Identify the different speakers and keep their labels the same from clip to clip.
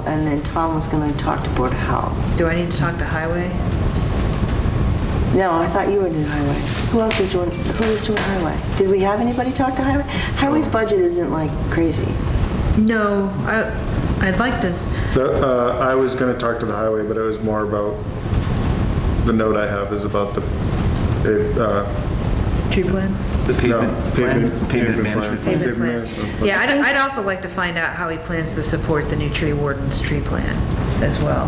Speaker 1: and then Tom was going to talk to Board of Health.
Speaker 2: Do I need to talk to Highway?
Speaker 1: No, I thought you were doing Highway. Who else was doing, who was doing Highway? Did we have anybody talk to Highway? Highway's budget isn't like crazy.
Speaker 2: No, I, I'd like to,
Speaker 3: The, uh, I was gonna talk to the highway, but it was more about, the note I have is about the, it, uh,
Speaker 2: tree plan?
Speaker 4: The pavement,
Speaker 3: no,
Speaker 4: pavement pavement
Speaker 3: plan.
Speaker 4: management.
Speaker 2: Payment
Speaker 3: management
Speaker 2: plan.
Speaker 3: plan.
Speaker 2: Yeah, I'd, I'd also like to find out how he plans to support the new tree warden's tree plan as well.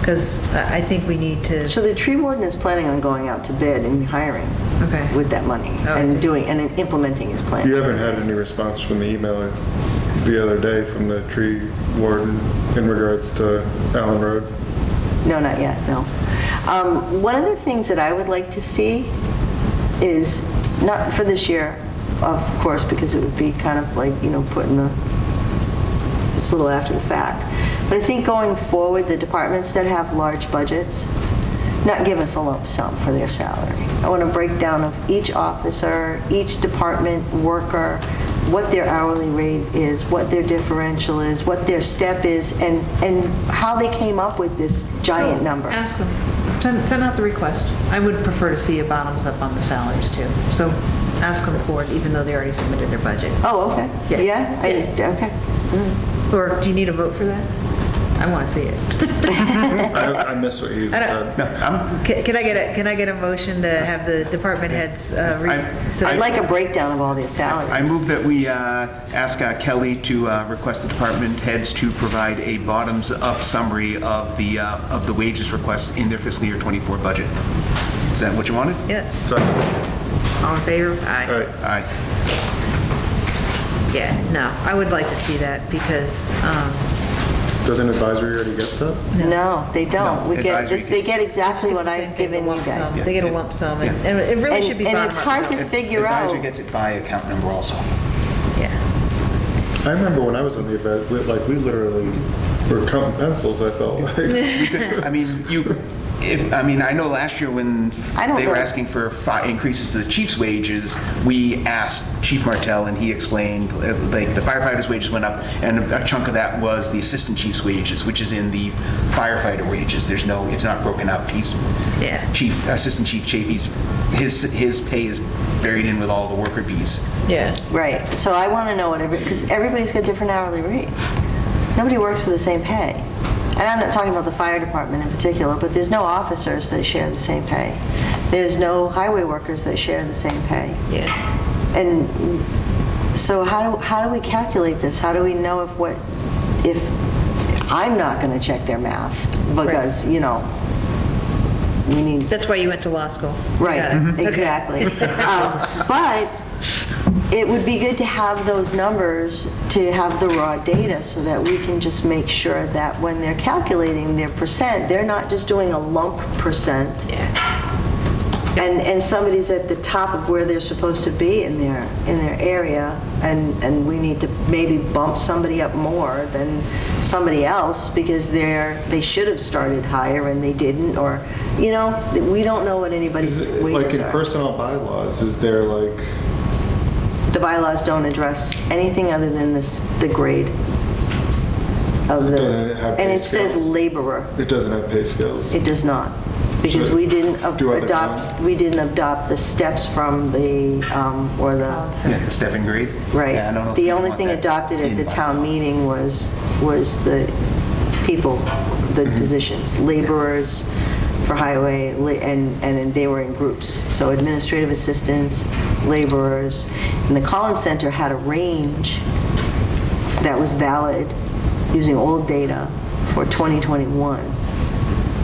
Speaker 2: Because I I think we need to,
Speaker 1: So the tree warden is planning on going out to bid and hiring
Speaker 2: Okay.
Speaker 1: with that money
Speaker 2: Oh, I see.
Speaker 1: and doing, and implementing his plan.
Speaker 3: You haven't had any response from the email the other day from the tree warden in regards to Allen Road?
Speaker 1: No, not yet, no. Um, One of the things that I would like to see is, not for this year, of course, because it would be kind of like, you know, putting the, it's a little after the fact, but I think going forward, the departments that have large budgets, not give us a lump sum for their salary. I want a breakdown of each officer, each department worker, what their hourly rate is, what their differential is, what their step is, and, and how they came up with this giant number.
Speaker 2: ask him, send, send out the request. I would prefer to see a bottoms up on the salaries too. So ask him for it, even though they already submitted their budget.
Speaker 1: Oh, okay.
Speaker 2: Yeah.
Speaker 1: Yeah? I- Okay.
Speaker 2: Or do you need a vote for that? I want to see it.
Speaker 3: I, I missed what you
Speaker 2: don't-
Speaker 3: said.
Speaker 2: Can can I get a, can I get a motion to have the department heads? uh, re-
Speaker 4: I-
Speaker 2: so-
Speaker 1: I'd like a breakdown of all their
Speaker 4: I
Speaker 1: salaries.
Speaker 4: move that we uh, ask uh, Kelly to uh, request the department heads to provide a bottoms-up summary of the, uh, of the wages requests in their fiscal year '24 budget. Is that what you wanted?
Speaker 2: Yeah,
Speaker 3: Sorry, all
Speaker 2: all in favor? Aye.
Speaker 3: right,
Speaker 4: All right.
Speaker 2: Yeah, no, I would like to see that because, um,
Speaker 3: doesn't advisory already get that?
Speaker 1: No, they don't. We get,
Speaker 4: advisory
Speaker 1: this- they get exactly what
Speaker 2: Same
Speaker 1: I've
Speaker 2: thing,
Speaker 1: given
Speaker 2: the
Speaker 1: you
Speaker 2: lump
Speaker 1: guys.
Speaker 2: sum. They get a lump sum, and
Speaker 4: Yeah.
Speaker 2: and it really
Speaker 1: And-
Speaker 2: should be
Speaker 1: and
Speaker 2: bottom
Speaker 1: it's
Speaker 2: up.
Speaker 1: hard to figure
Speaker 4: Advisor
Speaker 1: out.
Speaker 4: gets it by account number also.
Speaker 2: Yeah,
Speaker 3: I remember when I was on the event, we- like, we literally were counting pencils, I felt like.
Speaker 4: We could- I mean, you, if, I mean, I know last year when
Speaker 1: I don't
Speaker 4: they were
Speaker 1: know.
Speaker 4: asking for fi- increases to the chief's wages, we asked Chief Martell, and he explained, uh, like, the firefighters' wages went up, and a chunk of that was the assistant chief's wages, which is in the firefighter wages. There's no, it's not broken up. He's,
Speaker 2: Yeah.
Speaker 4: Chief, Assistant Chief Chafee's, his, his pay is buried in with all the worker bees.
Speaker 2: yeah.
Speaker 1: Right, so I want to know what every, because everybody's got different hourly rate. Nobody works for the same pay. And I'm not talking about the fire department in particular, but there's no officers that share the same pay. There's no highway workers that share the same pay.
Speaker 2: Yeah.
Speaker 1: And so how do, how do we calculate this? How do we know if what, if, I'm not going to check their math because, you know, we need
Speaker 2: That's why you went to law school. You got it.
Speaker 1: Right,
Speaker 2: Mm-hmm. Okay.
Speaker 1: exactly. Um, But it would be good to have those numbers, to have the raw data, so that we can just make sure that when they're calculating their percent, they're not just doing a lump percent. And, and somebody's at the top of where they're supposed to be in their, in their area, and, and we need to maybe bump somebody up more than somebody else because they're, they should have started higher and they didn't, or, you know, we don't know what anybody's
Speaker 3: Is it- Like
Speaker 1: wages
Speaker 3: in
Speaker 1: are.
Speaker 3: personnel bylaws, is there like,
Speaker 1: The bylaws don't address anything other than this, the grade of
Speaker 3: Doesn't it
Speaker 1: the,
Speaker 3: have
Speaker 1: and
Speaker 3: pay
Speaker 1: it says
Speaker 3: scales?
Speaker 1: laborer.
Speaker 3: it doesn't have pay scales?
Speaker 1: It does not, because
Speaker 3: So,
Speaker 1: we didn't ab-
Speaker 3: do other
Speaker 1: adopt, we didn't adopt the steps from the, um, or the,
Speaker 4: Yeah, the step and grade. Yeah, I don't know
Speaker 1: right.
Speaker 4: if
Speaker 1: The
Speaker 4: we
Speaker 1: only
Speaker 4: want
Speaker 1: thing
Speaker 4: that
Speaker 1: adopted at
Speaker 4: in
Speaker 1: the
Speaker 4: by
Speaker 1: town
Speaker 4: law.
Speaker 1: meeting was, was the people, the
Speaker 4: Mm-hmm.
Speaker 1: positions, laborers for highway, la- and, and then they were in groups. So administrative assistants, laborers, and the Collins Center had a range that was valid using old data for 2021.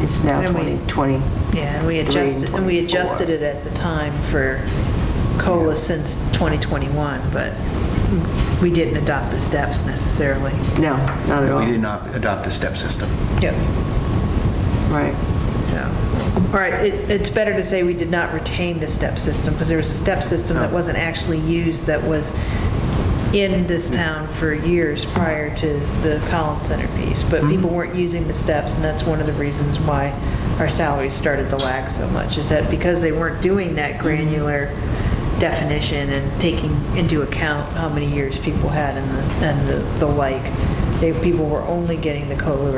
Speaker 1: It's now
Speaker 2: And we-
Speaker 1: 2020.
Speaker 2: Yeah, and we adjusted, and we adjusted it at the time for COLA since 2021, but we didn't adopt the steps necessarily.
Speaker 1: No, not at all.
Speaker 4: We did not adopt a step system.
Speaker 2: Yep.
Speaker 1: Right.
Speaker 2: So, all right, it, it's better to say we did not retain the step system, because there was a step system that wasn't actually used, that was in this town for years prior to the Collins Center piece, but people weren't using the steps, and that's one of the reasons why our salaries started to lag so much, is that because they weren't doing that granular definition and taking into account how many years people had and the, and the the like, they, people were only getting the COLA